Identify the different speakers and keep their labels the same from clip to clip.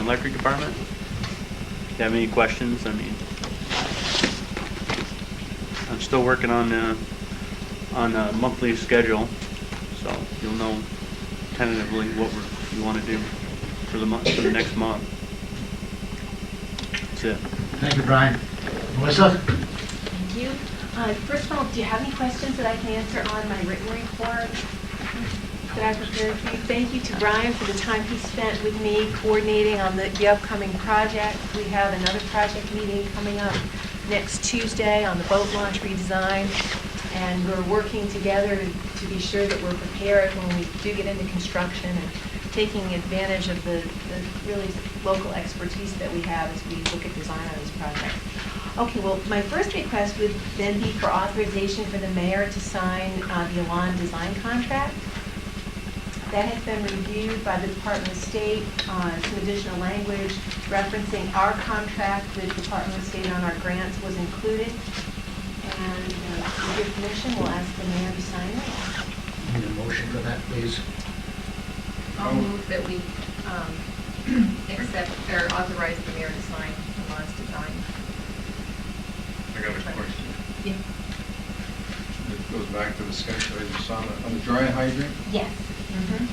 Speaker 1: electric department? Do you have any questions? I mean, I'm still working on, uh, on a monthly schedule, so you'll know tentatively what we're, you wanna do for the month, for the next month. That's it.
Speaker 2: Thank you, Brian. Melissa?
Speaker 3: Thank you. Uh, First of all, do you have any questions that I can answer on my written report that I prepared for you? Thank you to Brian for the time he spent with me coordinating on the the upcoming project. We have another project meeting coming up next Tuesday on the boat launch redesign, and we're working together to be sure that we're prepared when we do get into construction and taking advantage of the the really local expertise that we have as we look at design on this project. Okay, well, my first request would then be for authorization for the mayor to sign uh, the Alon design contract. That has been reviewed by the Department of State, uh, some additional language referencing our contract with the Department of State on our grants was included. And uh, with your permission, we'll ask the mayor to sign it.
Speaker 2: Need a motion for that, please?
Speaker 4: I'll move that we um, accept or authorize the mayor to sign Lamon's design.
Speaker 5: I got a question.
Speaker 4: Yeah.
Speaker 5: It goes back to the sketch I just saw on the- on the dry hydrant.
Speaker 3: Yes. Mm-hmm.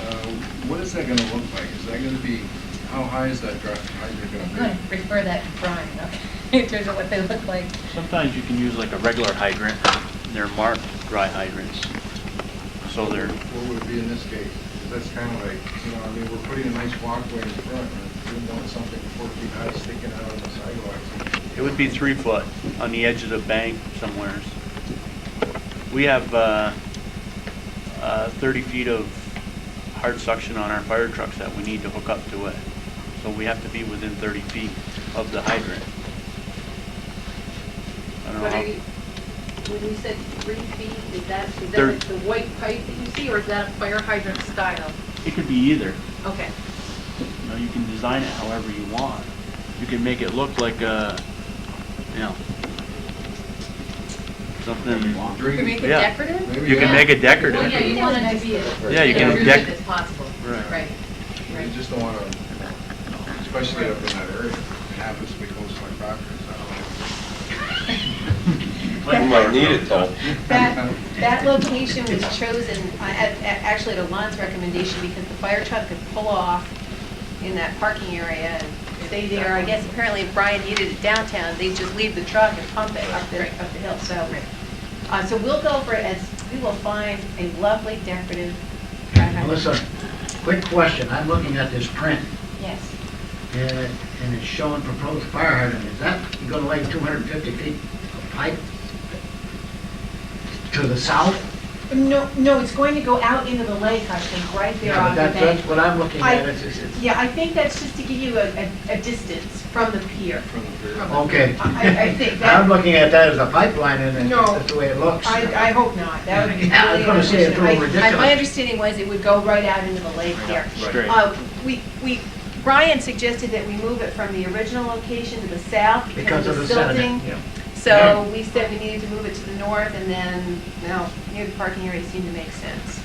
Speaker 5: Uh, What is that going to look like? Is that going to be, how high is that dry hydrant going
Speaker 4: I'm
Speaker 5: to
Speaker 4: going to
Speaker 5: be?
Speaker 4: refer that to Brian, okay, in terms of what they look like.
Speaker 1: Sometimes you can use like a regular hydrant, they're marked dry hydrants, so they're,
Speaker 5: What would it be in this case? 'Cause that's kind of like, you know, I mean, we're putting a nice walkway in front, and we want something four feet high sticking out on the sidewalk.
Speaker 1: it would be three foot on the edge of the bank somewheres. We have uh, uh, 30 feet of hard suction on our fire trucks that we need to hook up to it, so we have to be within 30 feet of the hydrant. I don't know
Speaker 6: But
Speaker 1: how-
Speaker 6: are you, when you said three feet, is that, is that
Speaker 1: There-
Speaker 6: like the white pipe that you see, or is that a fire hydrant style?
Speaker 1: It could be either.
Speaker 6: Okay.
Speaker 1: You know, you can design it however you want. You can make it look like a, you know, something.
Speaker 4: You can make it
Speaker 1: Yeah.
Speaker 4: decorative?
Speaker 1: You can make it decorative.
Speaker 6: Well, yeah, you want it to be as
Speaker 1: Yeah, you can
Speaker 6: intrusive
Speaker 1: deck-
Speaker 6: as possible.
Speaker 1: Right.
Speaker 6: Right.
Speaker 5: You just don't want to, especially up in that area, it happens to be close to my property, so I don't know.
Speaker 7: You might need it though.
Speaker 3: That, that location was chosen, uh, at- at- actually at Alon's recommendation, because the fire truck could pull off in that parking area and stay there. I guess apparently if Brian needed it downtown, they'd just leave the truck and pump it up the, up the hill, so. uh, So we'll go for it as, we will find a lovely decorative. dry hydrant.
Speaker 2: Melissa, quick question. I'm looking at this print,
Speaker 3: Yes.
Speaker 2: and it- and it's showing proposed fire hydrant. Is that going to lay 250 feet of pipe to the south?
Speaker 3: No, no, it's going to go out into the lake, I think, right there
Speaker 2: Yeah, but
Speaker 3: on the
Speaker 2: that-
Speaker 3: bank.
Speaker 2: That's what I'm looking at.
Speaker 3: I-
Speaker 2: It's- it's- it's-
Speaker 3: Yeah, I think that's just to give you a, a- a distance from the pier.
Speaker 5: From the rear.
Speaker 2: Okay.
Speaker 3: I- I think that-
Speaker 2: I'm looking at that as a pipeline, and it-
Speaker 3: No.
Speaker 2: that's the way it looks.
Speaker 3: I, I hope not, that would be
Speaker 2: Yeah, I was
Speaker 3: really
Speaker 2: gonna say it's a little
Speaker 3: unfortunate. I- I- My
Speaker 2: ridiculous.
Speaker 3: understanding was it would go right out into the lake there.
Speaker 1: Straight.
Speaker 3: Uh, we, we, Brian suggested that we move it from the original location to the south because of the silting.
Speaker 2: sediment, yeah.
Speaker 3: So we said we needed to move it to the north, and then, no, near the parking area seemed to make sense.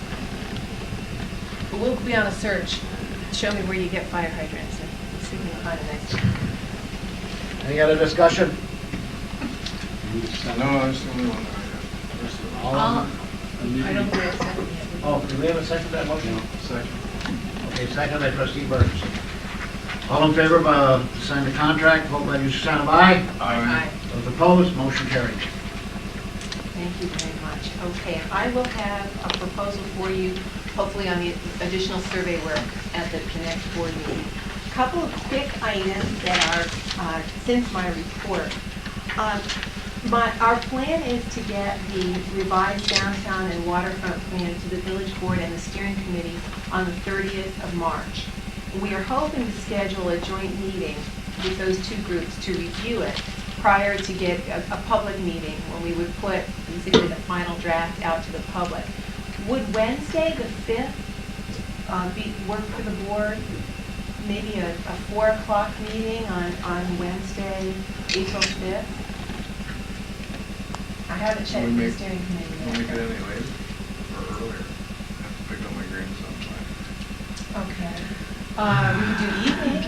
Speaker 3: But we'll be on a search, show me where you get fire hydrants, and see if we can find the next one.
Speaker 2: Any other discussion?
Speaker 5: No, I was the only one. that I had. There's the-
Speaker 2: All
Speaker 3: Um,
Speaker 4: I'll-
Speaker 2: in-
Speaker 4: I don't think it's happening yet.
Speaker 2: Oh, do we have a second to that motion?
Speaker 5: Second.
Speaker 2: Okay, second by trustee Burns. All in favor of, uh, signing the contract, vote by your sign of aye.
Speaker 4: Aye.
Speaker 2: Those opposed, motion carried.
Speaker 3: Thank you very much. Okay, I will have a proposal for you, hopefully on the additional survey work at the Connect Board meeting. Couple of quick items that are uh, since my report. Um, My, our plan is to get the revised downtown and waterfront plan to the village board and the steering committee on the 30th of March. We are hoping to schedule a joint meeting with those two groups to review it prior to get a, a public meeting when we would put basically the final draft out to the public. Would Wednesday, the 5th, uh, be, work for the board? Maybe a, a 4 o'clock meeting on, on Wednesday, April 5th? I haven't checked
Speaker 5: Can
Speaker 3: the
Speaker 5: we make-
Speaker 3: steering
Speaker 5: We'll
Speaker 3: committee
Speaker 5: make it
Speaker 3: yet.
Speaker 5: any later or earlier. I have to pick up my grandson.
Speaker 3: Okay. Um, we do evening.